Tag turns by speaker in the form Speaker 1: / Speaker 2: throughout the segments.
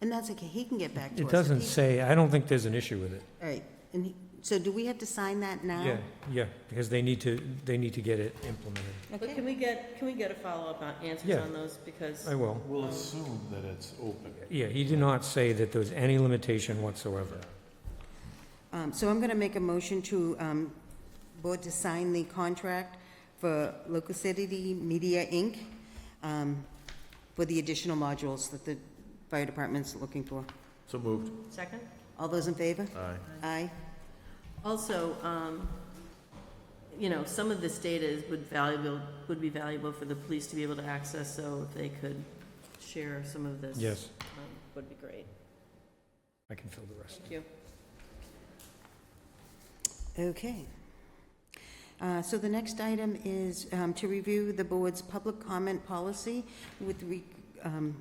Speaker 1: And that's okay, he can get back to us.
Speaker 2: It
Speaker 1: If
Speaker 2: doesn't
Speaker 1: he-
Speaker 2: say, I don't think there's an issue with it.
Speaker 1: All right, and he, so do we have to sign that now?
Speaker 2: Yeah, yeah, because they need to, they need to get it implemented.
Speaker 3: But can we get, can we get a follow-up on answers
Speaker 2: Yeah.
Speaker 3: on those, because
Speaker 2: I will.
Speaker 4: We'll assume that it's open.
Speaker 2: Yeah, he did not say that there was any limitation whatsoever.
Speaker 1: Um, so I'm gonna make a motion to, um, board to sign the contract for Local City Media, Inc., um, for the additional modules that the fire department's looking for.
Speaker 4: So moved.
Speaker 3: second?
Speaker 1: All those in favor?
Speaker 4: Aye.
Speaker 1: Aye.
Speaker 3: Also, um, you know, some of this data is, would valuable, would be valuable for the police to be able to access, so if they could share some of this.
Speaker 2: Yes,
Speaker 3: um, Would be great.
Speaker 2: I can fill the rest.
Speaker 3: Thank you.
Speaker 1: Okay. Uh, So the next item is um, to review the board's public comment policy with, re- um,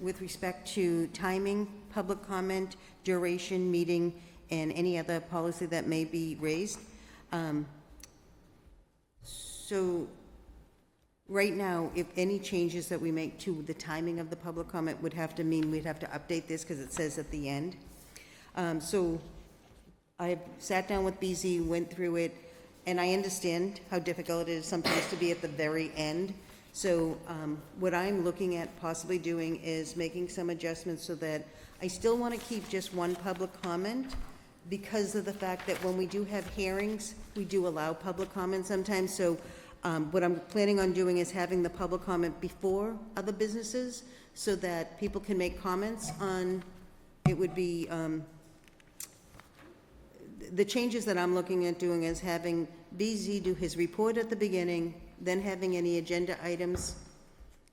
Speaker 1: with respect to timing, public comment, duration, meeting, and any other policy that may be raised. Um, So right now, if any changes that we make to the timing of the public comment would have to mean we'd have to update this because it says at the end. Um, So I sat down with BZ, went through it, and I understand how difficult it is sometimes to be at the very end. So um, what I'm looking at possibly doing is making some adjustments so that I still want to keep just one public comment because of the fact that when we do have hearings, we do allow public comment sometimes. So um, what I'm planning on doing is having the public comment before other businesses so that people can make comments on, it would be, um, the changes that I'm looking at doing is having BZ do his report at the beginning, then having any agenda items,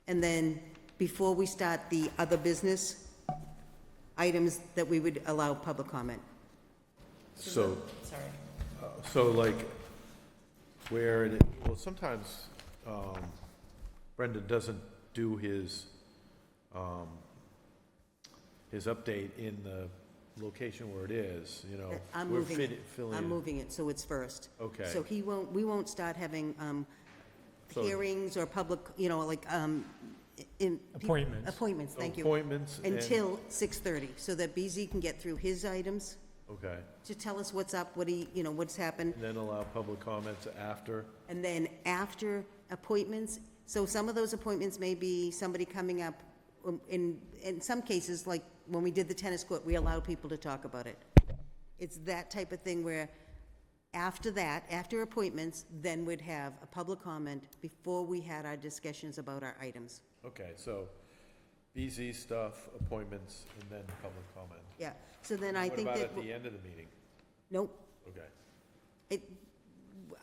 Speaker 1: and then before we start the other business, items that we would allow public comment.
Speaker 4: So,
Speaker 3: Sorry.
Speaker 4: so like, where, it well, sometimes um, Brendan doesn't do his, um, his update in the location where it is, you know.
Speaker 1: Uh, I'm
Speaker 4: We're
Speaker 1: moving
Speaker 4: fit-
Speaker 1: it.
Speaker 4: filling
Speaker 1: I'm
Speaker 4: in.
Speaker 1: moving it, so it's first.
Speaker 4: Okay.
Speaker 1: So he won't, we won't start having um,
Speaker 4: So-
Speaker 1: hearings or public, you know, like, um, in.
Speaker 2: Appointments.
Speaker 1: Appointments, thank you.
Speaker 4: Appointments and.
Speaker 1: Until 6:30, so that BZ can get through his items
Speaker 4: Okay,
Speaker 1: to tell us what's up, what he, you know, what's happened.
Speaker 4: and then allow public comments after.
Speaker 1: And then after appointments, so some of those appointments may be somebody coming up, um, in, in some cases, like when we did the tennis court, we allowed people to talk about it. It's that type of thing where after that, after appointments, then we'd have a public comment before we had our discussions about our items.
Speaker 4: Okay, so BZ stuff, appointments, and then public comment.
Speaker 1: Yeah, so then I think
Speaker 4: What
Speaker 1: that,
Speaker 4: about at the end of the meeting?
Speaker 1: nope,
Speaker 4: Okay.
Speaker 1: it,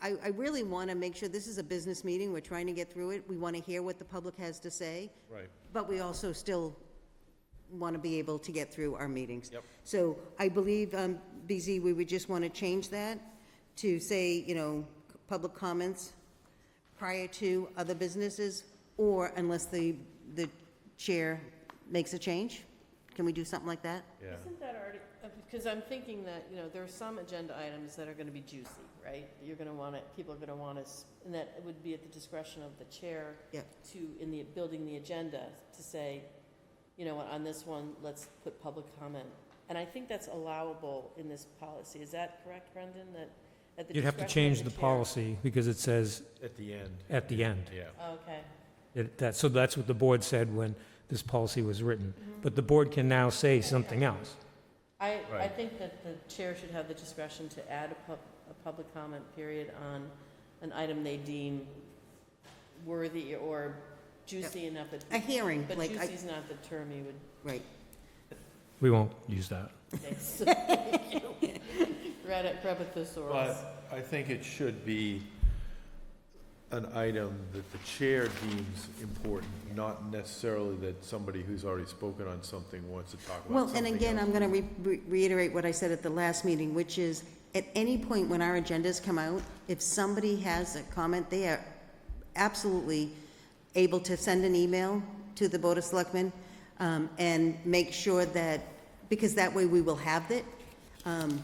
Speaker 1: I, I really want to make sure, this is a business meeting, we're trying to get through it, we want to hear what the public has to say.
Speaker 4: Right.
Speaker 1: But we also still want to be able to get through our meetings.
Speaker 4: Yep.
Speaker 1: So I believe, um, BZ, we would just want to change that to say, you know, public comments prior to other businesses, or unless the, the chair makes a change. Can we do something like that?
Speaker 4: Yeah.
Speaker 3: Isn't that already, uh, because I'm thinking that, you know, there are some agenda items that are gonna be juicy, right? You're gonna want it, people are gonna want us, and that would be at the discretion of the chair
Speaker 1: Yep.
Speaker 3: to, in the, building the agenda, to say, you know what, on this one, let's put public comment. And I think that's allowable in this policy. Is that correct, Brendan, that at the
Speaker 2: You'd have
Speaker 3: discretion
Speaker 2: to
Speaker 3: of
Speaker 2: change the
Speaker 3: chair?
Speaker 2: policy because it says
Speaker 4: At the end,
Speaker 2: at the end.
Speaker 4: yeah.
Speaker 3: Oh, Okay,
Speaker 2: It- that- So that's what the board said when this policy was written. But the board can now say something else.
Speaker 3: I, I
Speaker 4: Right.
Speaker 3: think that the chair should have the discretion to add a pub, a public comment period on an item they deem worthy or juicy enough. that-
Speaker 1: A hearing,
Speaker 3: But
Speaker 1: like, I-
Speaker 3: juicy's not the term you would
Speaker 1: Right.
Speaker 2: We won't use that.
Speaker 3: say. so thank you. Grab it, grab a thesaurus.
Speaker 4: But I think it should be an item that the chair deems important, not necessarily that somebody who's already spoken on something wants to talk about
Speaker 1: Well,
Speaker 4: something
Speaker 1: and again,
Speaker 4: else.
Speaker 1: I'm going to reiterate what I said at the last meeting, which is, at any point when our agendas come out, if somebody has a comment, they are absolutely able to send an email to the Board of Selectmen um, and make sure that, because that way we will have it. Um,